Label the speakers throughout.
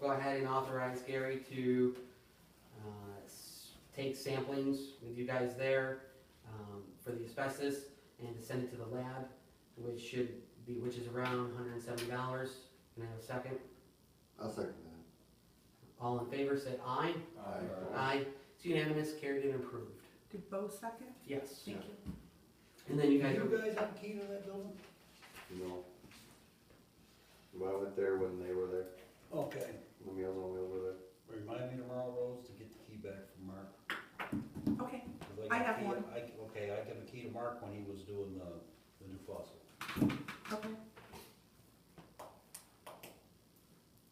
Speaker 1: go ahead and authorize Gary to, uh, s- take samplings with you guys there, um, for the asbestos and to send it to the lab, which should be, which is around hundred and seventy dollars. Can I have a second?
Speaker 2: I'll second
Speaker 1: All in favor, say aye. Aye. It's unanimous, carried and approved.
Speaker 3: Did Bo second?
Speaker 1: Yes.
Speaker 3: Thank you.
Speaker 1: And then you
Speaker 4: You
Speaker 1: guys are,
Speaker 4: guys have a key to that building?
Speaker 2: that, you know. But I went there when they were there,
Speaker 4: Okay.
Speaker 2: when Meals on Wheels were there.
Speaker 4: Remind me tomorrow, Rose, to get the key back from Mark.
Speaker 3: Okay,
Speaker 4: 'cause
Speaker 3: I
Speaker 4: got a
Speaker 3: have
Speaker 4: key-
Speaker 3: one.
Speaker 4: I- Okay, I got a key to Mark when he was doing the, the new fossil.
Speaker 3: okay.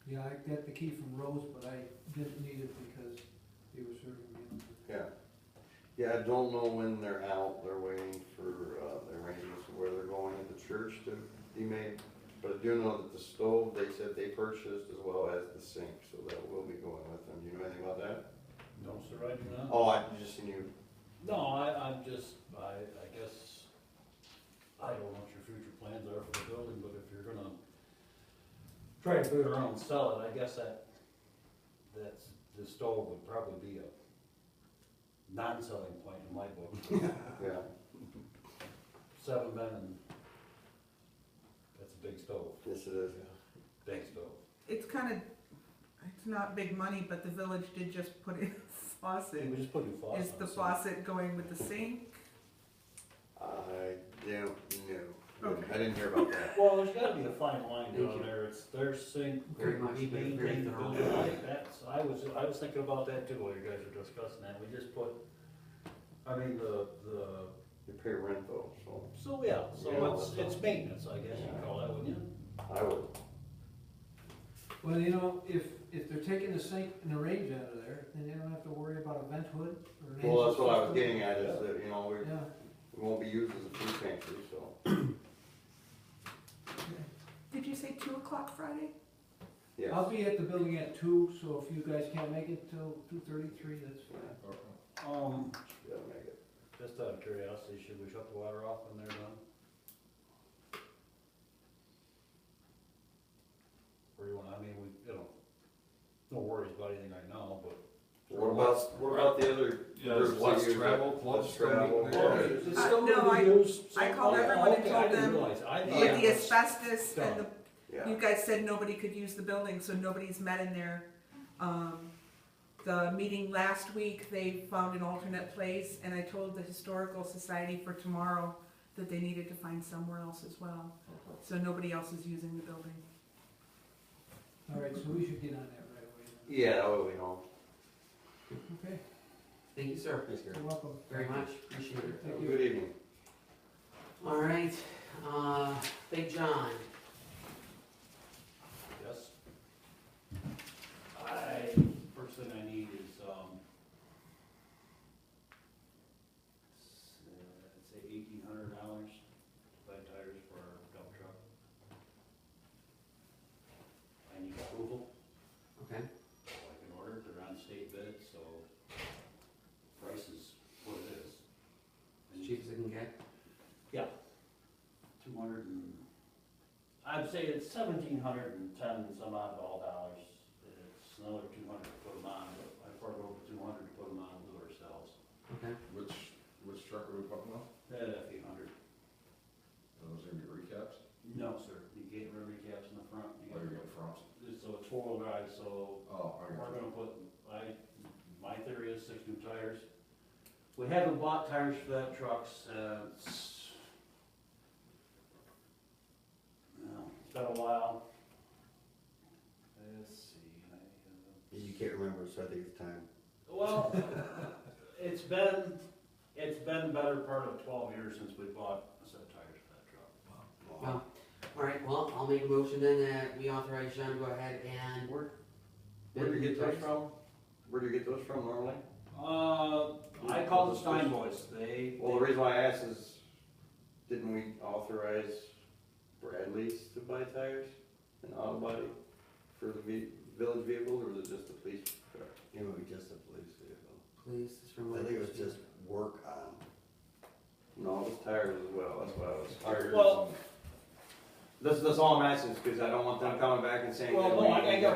Speaker 5: Yeah, I got the key from Rose, but I didn't need it because they were serving me.
Speaker 2: Yeah. Yeah, I don't know when they're out, they're waiting for, uh, the arrangements of where they're going at the church to be made. But I do know that the stove, they said they purchased as well as the sink, so that will be going with them. Do you know anything about that?
Speaker 4: No, sir, I do not.
Speaker 2: Oh, I just seen you,
Speaker 4: No, I, I'm just, I, I guess, I don't know what your future plans are for the building, but if you're gonna try to boot around and sell it, I guess that, that's, the stove would probably be a non-selling point in my book.
Speaker 2: yeah.
Speaker 4: Seven men and, that's a big stove,
Speaker 2: Yes, it is.
Speaker 4: big stove.
Speaker 3: It's kind of, it's not big money, but the village did just put in
Speaker 4: Hey,
Speaker 3: faucet.
Speaker 4: we just put new faucet.
Speaker 3: Is the
Speaker 4: on, so-
Speaker 3: faucet going with the sink?
Speaker 2: I don't know.
Speaker 3: Okay.
Speaker 2: I didn't hear about that.
Speaker 4: Well, there's gotta be a fine line
Speaker 1: Thank
Speaker 4: down
Speaker 1: you.
Speaker 4: there, it's their sink,
Speaker 1: Very much,
Speaker 4: we
Speaker 1: very, very
Speaker 4: maintain the
Speaker 1: thorough.
Speaker 4: building like that, so I was, I was thinking about that too, while you guys were discussing that, we just put, I mean, the, the,
Speaker 2: You pay rent though, so
Speaker 4: so, yeah,
Speaker 2: Yeah.
Speaker 4: so it's, it's maintenance, I guess you'd call that, wouldn't you?
Speaker 2: I would,
Speaker 5: Well, you know, if, if they're taking the sink and the range out of there, then they don't have to worry about a vent hood or an.
Speaker 2: well, that's what I was
Speaker 5: exhaust
Speaker 2: getting at, is that, you know, we,
Speaker 5: system. Yeah.
Speaker 2: we won't be used as a food pantry, so.
Speaker 3: Did you say two o'clock Friday?
Speaker 2: Yes.
Speaker 5: I'll be at the building at two, so if you guys can't make it till two thirty-three, that's
Speaker 2: Yeah,
Speaker 5: fine.
Speaker 4: Um,
Speaker 2: that'll make it.
Speaker 4: just out of curiosity, should we shut the water off when they're done? Or you wanna, I mean, we, you know, no worries about anything right now, but.
Speaker 2: What about, what about the other?
Speaker 6: Yeah,
Speaker 2: groups that
Speaker 6: less
Speaker 2: use it?
Speaker 6: travel, clubs,
Speaker 2: Less travel,
Speaker 6: clubs.
Speaker 2: yeah.
Speaker 4: It's
Speaker 3: Uh,
Speaker 4: still
Speaker 3: no,
Speaker 4: gonna be
Speaker 3: I-
Speaker 4: used
Speaker 3: I
Speaker 4: some-
Speaker 3: called
Speaker 4: oh,
Speaker 3: everyone and
Speaker 4: okay,
Speaker 3: told
Speaker 4: I didn't
Speaker 3: them
Speaker 4: realize. I thought
Speaker 3: With
Speaker 4: it
Speaker 3: the
Speaker 4: was-
Speaker 3: asbestos and the,
Speaker 2: Yeah,
Speaker 3: you guys said nobody could use the building, so nobody's met in there. Um, the meeting last week, they found an alternate place, and I told the historical society for tomorrow that they needed to find somewhere else as well. So nobody else is using the building.
Speaker 5: All right, so we should get on that right away. then.
Speaker 2: yeah, oh, that would be all.
Speaker 5: Okay,
Speaker 1: thank you, sir,
Speaker 5: you're welcome.
Speaker 1: very much, appreciate it.
Speaker 2: Have
Speaker 5: Thank
Speaker 2: a
Speaker 5: you.
Speaker 2: Good evening.
Speaker 1: All right, uh, Big John,
Speaker 4: Yes. I, first thing I need is, um, s- uh, I'd say eighteen hundred dollars to buy tires for our dump truck. I need approval,
Speaker 1: okay,
Speaker 4: so I can order, it. they're on state bid, so price is what it is.
Speaker 1: as
Speaker 4: And
Speaker 1: cheap as I can get,
Speaker 4: two hundred and, I'd say it's seventeen hundred and ten some odd all dollars. It's another two hundred to put them on, but I poured over two hundred to put them on and do it ourselves.
Speaker 1: okay,
Speaker 6: Which, which truck are we pumping off?
Speaker 4: Uh, eight hundred.
Speaker 6: Those are gonna be recaps,
Speaker 4: No, sir, you get river caps in the front. you
Speaker 6: or you're
Speaker 4: get-
Speaker 6: gonna front?
Speaker 4: So it's four-wheel drive, so
Speaker 6: Oh, I
Speaker 4: We're
Speaker 6: got
Speaker 4: gonna put, I, my theory is six new tires. We haven't bought tires for that uh, truck since. No, It's been a while. Let's see. I, uh,
Speaker 2: You can't remember, so I think it's time.
Speaker 4: Well, it's been, it's been better part of twelve years since we bought a set of tires for that truck.
Speaker 1: well, all right, well, I'll make a motion then that we authorize John to go ahead and.
Speaker 2: Where, where do you get those from? Where do you get those from normally?
Speaker 4: Uh, I called the Stein boys, they.
Speaker 2: Well, the reason why I asked is, didn't we authorize Bradley's to buy tires and auto body for the ve- village vehicles, or was it just the police truck?
Speaker 7: It would be just a police vehicle.
Speaker 1: Please, it's from.
Speaker 7: I think it was just work on,
Speaker 2: No, it was tires as well, that's why I was.
Speaker 4: Well,
Speaker 2: That's, that's all I'm asking, is because I don't want them coming back and saying.
Speaker 4: Well,
Speaker 2: that
Speaker 4: no,
Speaker 2: we-
Speaker 4: I- I got